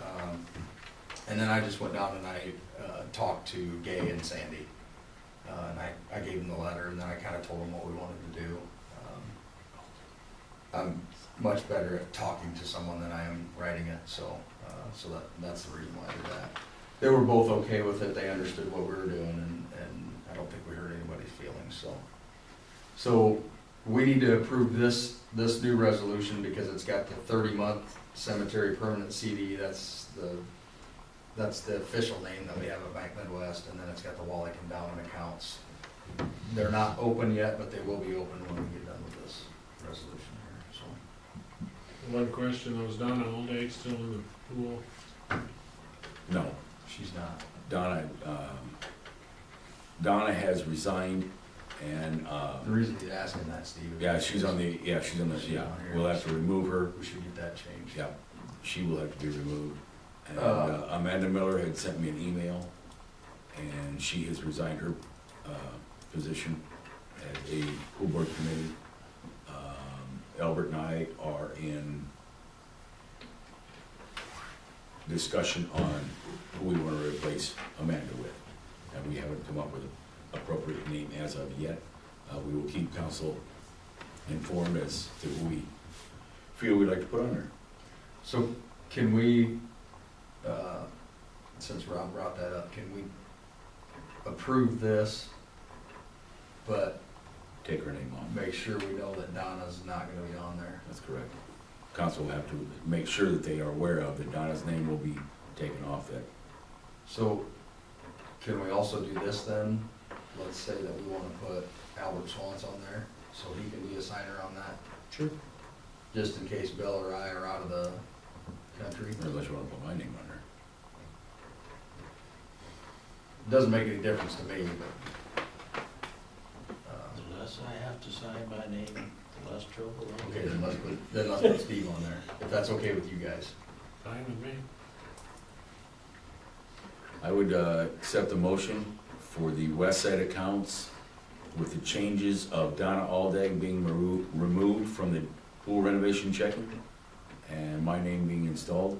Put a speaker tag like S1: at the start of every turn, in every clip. S1: Um, And then I just went down and I uh, talked to Gay and Sandy. Uh, And I, I gave them the letter and then I kind of told them what we wanted to do. Um, I'm much better at talking to someone than I am writing it, so, uh, so that, that's the reason why I did that. They were both okay with it, they understood what we were doing and, and I don't think we hurt anybody's feelings, so. So we need to approve this, this new resolution because it's got the thirty-month cemetery permanent CD, that's the, that's the official name that we have at Bank Midwest, and then it's got the Wallack Endowment accounts. They're not open yet, but they will be open when we get done with this resolution here, so.
S2: One question, I was down in old age, still in the pool.
S3: No,
S1: She's not.
S3: Donna, um, Donna has resigned and, uh,
S1: The reason he's asking that, Steve. is
S3: yeah, she's on the, yeah, she's on the, yeah, we'll have to remove her.
S1: We should get that changed.
S3: Yeah, she will have to be removed. And
S1: Uh.
S3: uh, Amanda Miller had sent me an email and she has resigned her, uh, position as a school board committee. Um, Albert and I are in discussion on who we wanna replace Amanda with. And we haven't come up with an appropriate name as of yet. Uh, we will keep council informed as to who we feel we'd like to put on there.
S1: So can we, uh, since Rob brought that up, can we approve this, but
S3: take her name off.
S1: make sure we know that Donna's not gonna be on there?
S3: That's correct. Council will have to make sure that they are aware of that Donna's name will be taken off that.
S1: So can we also do this then? Let's say that we wanna put Albert Swans on there, so he can be a signer on that,
S3: Sure.
S1: just in case Bill or I are out of the country.
S3: Unless you wanna put my name on there.
S1: Doesn't make any difference to me, but. uh,
S4: The less I have to sign my name, the less trouble I
S1: Okay,
S4: get.
S1: then let's put, then let's put Steve on there, if that's okay with you guys.
S2: Fine with me.
S3: I would, uh, accept the motion for the West Side accounts with the changes of Donna Aldag being remo- removed from the pool renovation checking and my name being installed.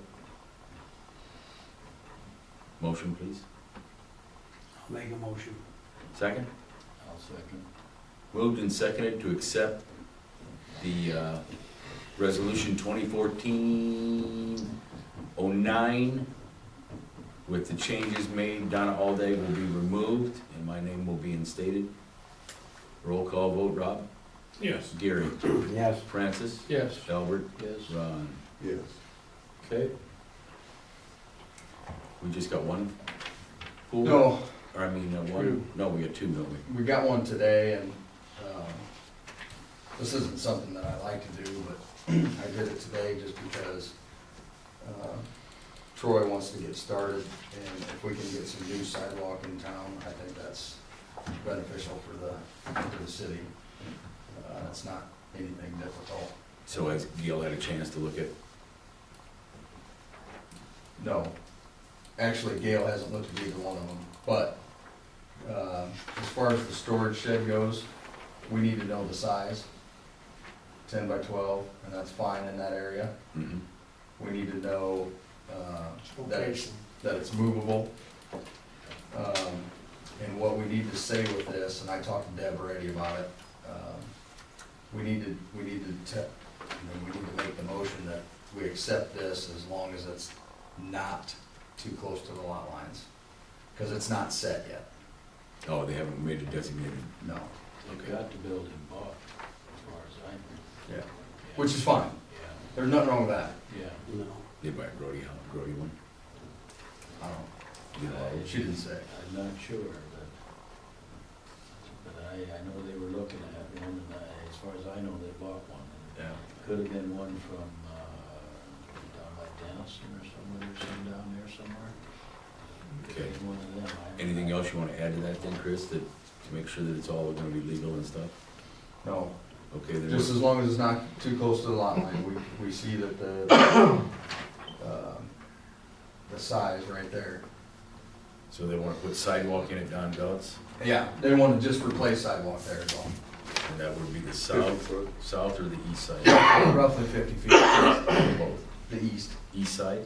S3: Motion, please.
S5: Make a motion.
S3: Second?
S1: I'll second.
S3: Moved and seconded to accept the uh, Resolution 2014-09 with the changes made. Donna Alday will be removed and my name will be instated. Roll call vote, Rob?
S2: Yes.
S3: Gary?
S5: Yes.
S3: Francis?
S2: Yes.
S3: Albert?
S4: Yes,
S3: Ron?
S5: Yes.
S3: Okay. We just got one? pool?
S1: No,
S3: Or I mean, uh,
S2: Two.
S3: one, no, we got two, don't we?
S1: we got one today and, um, this isn't something that I like to do, but I did it today just because, uh, Troy wants to get started and if we can get some new sidewalk in town, I think that's beneficial for the, for the city. Uh, it's not anything difficult.
S3: So has Gail had a chance to look at
S1: No. Actually, Gail hasn't looked at either one of them, but, uh, as far as the storage shed goes, we need to know the size. Ten by twelve, and that's fine in that area.
S3: mhm,
S1: We need to know, uh, that it's,
S5: Location.
S1: that it's movable. Um, and what we need to say with this, and I talked to Deb already about it, um, we need to, we need to te- you know, we need to make the motion that we accept this as long as it's not too close to the lot lines. Cause it's not set yet,
S3: Oh, they haven't made a designated.
S1: no,
S4: they've got the building bought, as far as I know.
S1: yeah, which is fine,
S4: Yeah,
S1: there's nothing wrong with that,
S4: yeah.
S5: No.
S3: They buy a Brody, house- Brody one.
S1: I don't,
S3: You know,
S1: she didn't say.
S4: I'm not sure, but, but I, I know they were looking at one, and I, as far as I know, they bought one.
S1: Yeah.
S4: Could have been one from, uh, down by Denison or somewhere, or some down there somewhere. Could have been One of them. I-
S3: Anything else you wanna add to that then, Chris, that, to make sure that it's all gonna be legal and stuff?
S1: No,
S3: Okay, then,
S1: Just as long as it's not too close to the lot line, we, we see that the, um, the size right there.
S3: so they wanna put sidewalk in at Don Dutz,
S1: Yeah, they wanna just replace sidewalk there as well,
S3: and that would be the south, south or the east side?
S1: roughly fifty feet,
S3: Both.
S1: the east.
S3: East side?